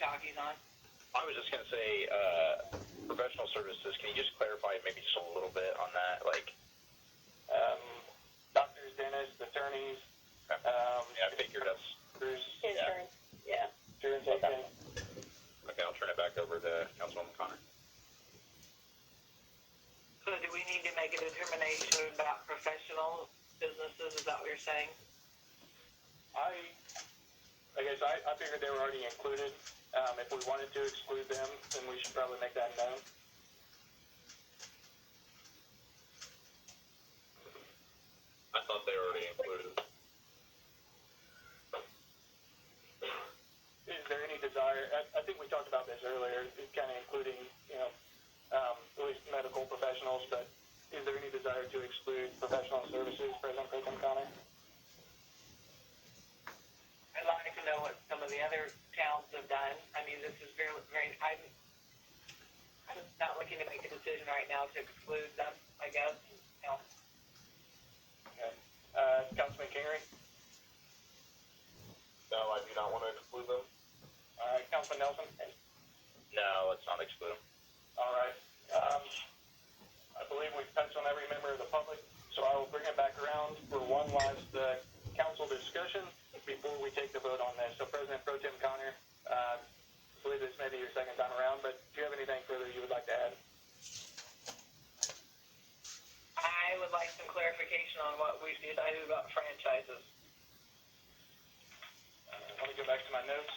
talking on? I was just gonna say, uh, professional services. Can you just clarify maybe just a little bit on that? Like, Um, doctors, dentists, attorneys, um, yeah, I figured that's there's Insurance, yeah. insurance agents. okay. I'll turn it back over to Councilwoman Connor. So do we need to make a determination about professional businesses? Is that what you're saying? I, I guess I, I figured they were already included. Um, if we wanted to exclude them, then we should probably make that known. I thought they were already included. Is there any desire, I, I think we talked about this earlier, kind of including, you know, um, at least medical professionals, but is there any desire to exclude professional services, President Pro Tem Connor? I'd like to know what some of the other towns have done. I mean, this is very, very, I'm, I'm not looking to make a decision right now to exclude them, I guess. You know, Okay. Uh, Councilman Kingery? No, I do not want to exclude them. All right, Councilman Nelson? No, let's not exclude them. All right. Um, I believe we've touched on every member of the public, so I will bring it back around for one last uh, council discussion before we take the vote on this. So President Pro Tem Connor, uh, I believe this may be your second time around, but do you have anything further you would like to add? I would like some clarification on what we decided about franchises. Uh, Let me go back to my notes.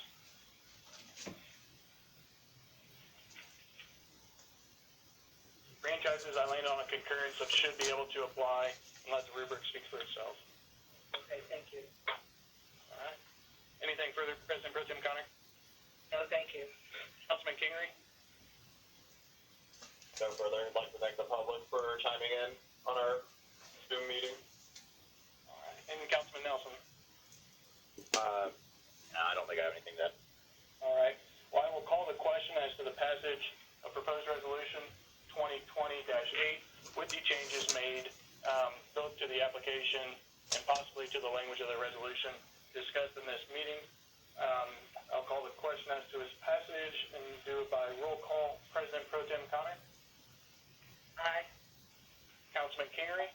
Franchises, I landed on a concurrence of should be able to apply unless the rubric speaks for itself. Okay, thank you. All right. Anything further, President Pro Tem Connor? No, thank you. Councilman Kingery? No further. I'd like to thank the public for chiming in on our Zoom meeting. All right. And Councilman Nelson? Uh, no, I don't think I have anything that. All right. Well, I will call the question as to the passage of proposed resolution 2020-8 with the changes made um, both to the application and possibly to the language of the resolution discussed in this meeting. Um, I'll call the question as to its passage and do it by roll call. President Pro Tem Connor, Aye. Councilman Kingery,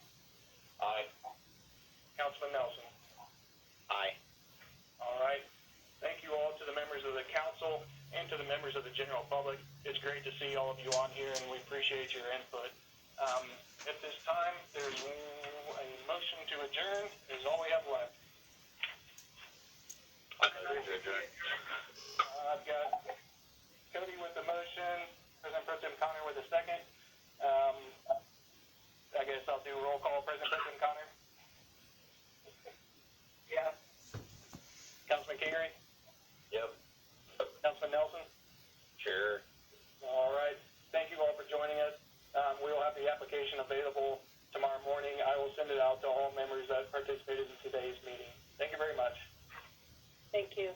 Aye. Councilman Nelson. Aye. All right. Thank you all to the members of the council and to the members of the general public. It's great to see all of you on here, and we appreciate your input. Um, at this time, there's a motion to adjourn. Is all we have left. Uh, I've got Cody with the motion, President Pro Tem Connor with a second. Um, I guess I'll do roll call. President Pro Tem Connor, Yeah. Councilman Kingery, Yep. Councilman Nelson. Sure. All right. Thank you all for joining us. Um, we will have the application available tomorrow morning. I will send it out to all members that participated in today's meeting. Thank you very much. Thank you.